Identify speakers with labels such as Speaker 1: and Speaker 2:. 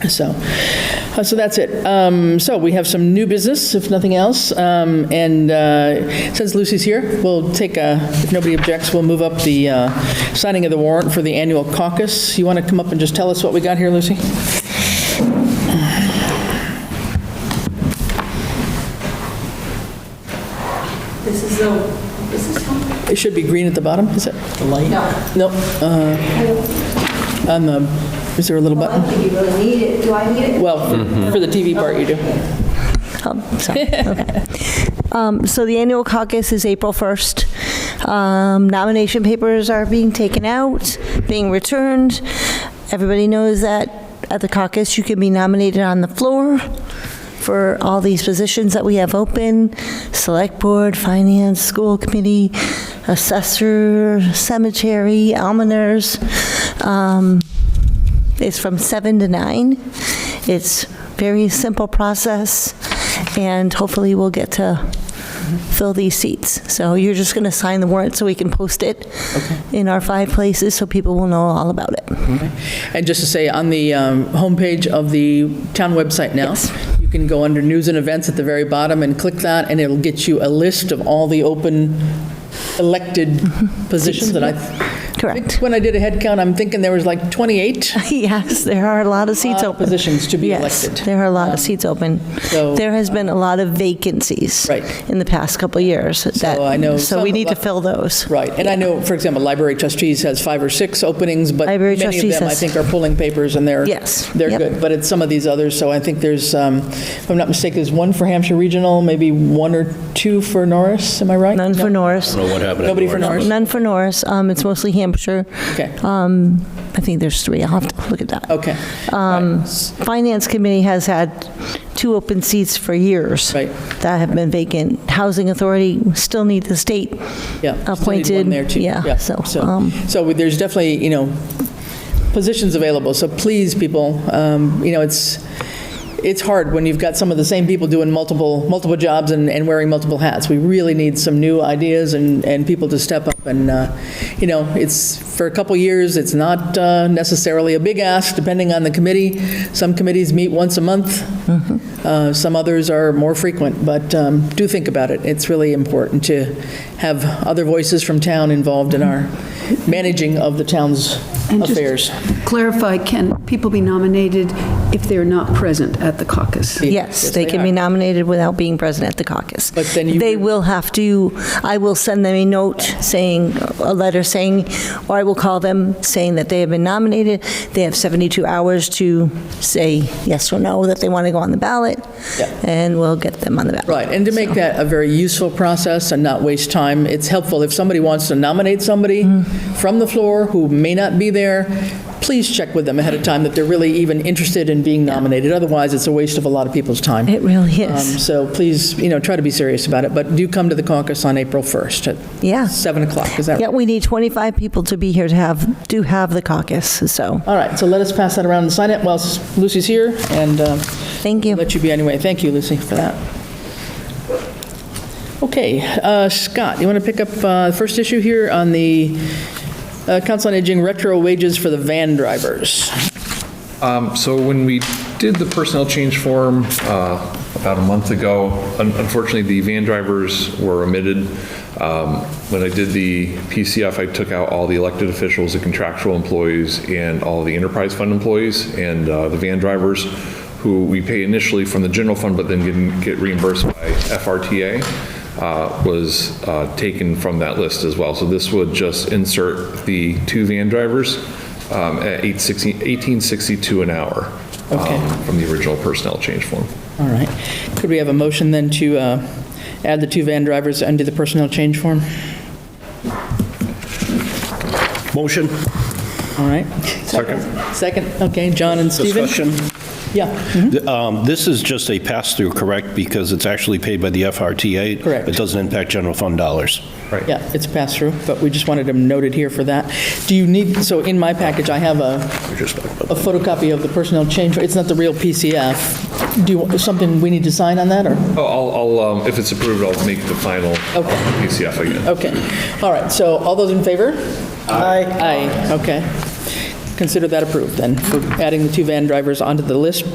Speaker 1: so, uh, so that's it. Um, So we have some new business, if nothing else, Um, and uh, since Lucy's here, we'll take, a- if nobody objects, we'll move up the uh, signing of the warrant for the annual caucus. You want to come up and just tell us what we got here, Lucy?
Speaker 2: This is the, this is,
Speaker 1: It should be green at the bottom, is it? The light? No. On the, is there a little
Speaker 2: I
Speaker 1: button?
Speaker 2: think you really need it. Do I need it?
Speaker 1: Well, for the TV part, you do.
Speaker 3: Oh, sorry. Okay. Um, So the annual caucus is April 1st. Um, Nomination papers are being taken out, being returned. Everybody knows that at the caucus, you can be nominated on the floor for all these positions that we have open, Select Board, Finance, School Committee, Assessor, Cemetery, Almoners. Um, it's from 7 to 9. It's very simple process, and hopefully we'll get to fill these seats. So you're just going to sign the warrant so we can post it in our five places so people will know all about it.
Speaker 1: And just to say, on the um, homepage of the town website now, you can go under News and Events at the very bottom and click that, and it'll get you a list of all the open elected positions that I...
Speaker 3: Correct.
Speaker 1: When I did a head count, I'm thinking there was like 28
Speaker 3: Yes, there are a lot of seats
Speaker 1: uh,
Speaker 3: open.
Speaker 1: positions to be
Speaker 3: Yes,
Speaker 1: elected. Um,
Speaker 3: there are a lot of seats open.
Speaker 1: so, uh,
Speaker 3: There has been a lot of vacancies
Speaker 1: Right.
Speaker 3: in the past couple of years. that-
Speaker 1: I know
Speaker 3: So
Speaker 1: some
Speaker 3: we
Speaker 1: of
Speaker 3: need to
Speaker 1: the-
Speaker 3: fill those.
Speaker 1: Right, and I know, for example, Library Trustees has five or six openings, but
Speaker 3: Library
Speaker 1: many of
Speaker 3: Trustees
Speaker 1: them, I
Speaker 3: has-
Speaker 1: think, are pulling papers, and they're,
Speaker 3: Yes,
Speaker 1: they're
Speaker 3: yep.
Speaker 1: good. But it's some of these others, so I think there's, um, if I'm not mistaken, there's one for Hampshire Regional, maybe one or two for Norris, am I right?
Speaker 3: None for Norris.
Speaker 4: know what happened. at
Speaker 1: Nobody for
Speaker 4: Norris.
Speaker 1: Norris?
Speaker 3: None for Norris. Um, It's mostly Hampshire.
Speaker 1: Okay,
Speaker 3: Um, I think there's three. I'll have to look at that.
Speaker 1: okay. Um.
Speaker 3: Finance Committee has had two open seats for years.
Speaker 1: Right.
Speaker 3: That have been vacant. Housing Authority still need the state.
Speaker 1: Yeah. still need one
Speaker 3: appointed,
Speaker 1: there, too.
Speaker 3: yeah, so, um,
Speaker 1: So there's definitely, you know, positions available, so please, people, um, you know, it's, it's hard when you've got some of the same people doing multiple, multiple jobs and, and wearing multiple hats. We really need some new ideas and, and people to step up, and, uh, you know, it's, for a couple years, it's not uh, necessarily a big ask, depending on the committee. Some committees meet once a month, Uh, some others are more frequent, but um, do think about it. It's really important to have other voices from town involved in our managing of the town's
Speaker 5: And just
Speaker 1: affairs.
Speaker 5: Clarify, can people be nominated if they're not present at the caucus?
Speaker 3: Yes, they can be
Speaker 1: are.
Speaker 3: nominated without being present at the caucus.
Speaker 1: But then you-
Speaker 3: They will have to, I will send them a note saying, a letter saying, or I will call them saying that they have been nominated. They have 72 hours to say yes or no, that they want to go on the ballot,
Speaker 1: Yeah.
Speaker 3: and we'll get them on the ballot.
Speaker 1: Right, and to make that a very useful process and not waste time, it's helpful if somebody wants to nominate somebody
Speaker 3: Mm.
Speaker 1: from the floor who may not be there, please check with them ahead of time that they're really even interested in being nominated. Otherwise, it's a waste of a lot of people's time.
Speaker 3: It really
Speaker 1: Um,
Speaker 3: is.
Speaker 1: So please, you know, try to be serious about it, but do come to the caucus on April 1st at
Speaker 3: Yeah.
Speaker 1: 7 o'clock, is that
Speaker 3: Yeah,
Speaker 1: right?
Speaker 3: we need 25 people to be here to have, do have the caucus, so,
Speaker 1: All right, so let us pass that around and sign it while Lucy's here, and um,
Speaker 3: thank you.
Speaker 1: let you be anyway. Thank you, Lucy, for that. Okay, uh, Scott, you want to pick up uh, the first issue here on the uh, Council on Aging retro wages for the van drivers?
Speaker 6: Um, So when we did the personnel change form uh, about a month ago, un- unfortunately, the van drivers were omitted. Um, When I did the PCF, I took out all the elected officials, the contractual employees, and all the enterprise fund employees, and uh, the van drivers, who we pay initially from the general fund, but then get- get reimbursed by FRTA, uh, was uh, taken from that list as well. So this would just insert the two van drivers um, at 860 1862 an hour um,
Speaker 1: Okay.
Speaker 6: from the original personnel change form.
Speaker 1: All right. Could we have a motion then to uh, add the two van drivers under the personnel change form?
Speaker 4: Motion,
Speaker 1: All right.
Speaker 6: Second.
Speaker 1: Second, okay, John and Stephen?
Speaker 4: discussion.
Speaker 1: Yeah.
Speaker 4: Th- um, This is just a pass-through, correct? Because it's actually paid by the FRTA.
Speaker 1: Correct.
Speaker 4: It doesn't impact general fund dollars.
Speaker 1: Yeah, it's pass-through, but we just wanted them noted here for that. Do you need, so in my package, I have a
Speaker 4: We're just talking about-
Speaker 1: a photocopy of the personnel change, it's not the real PCF. Do you, want- something we need to sign on that, or?
Speaker 6: Oh, I'll, I'll, um, if it's approved, I'll make the final
Speaker 1: Okay.
Speaker 6: PCF again.
Speaker 1: Okay, all right, so all those in favor? Aye. Aye, okay. consider that approved, then, for adding the two van drivers onto the list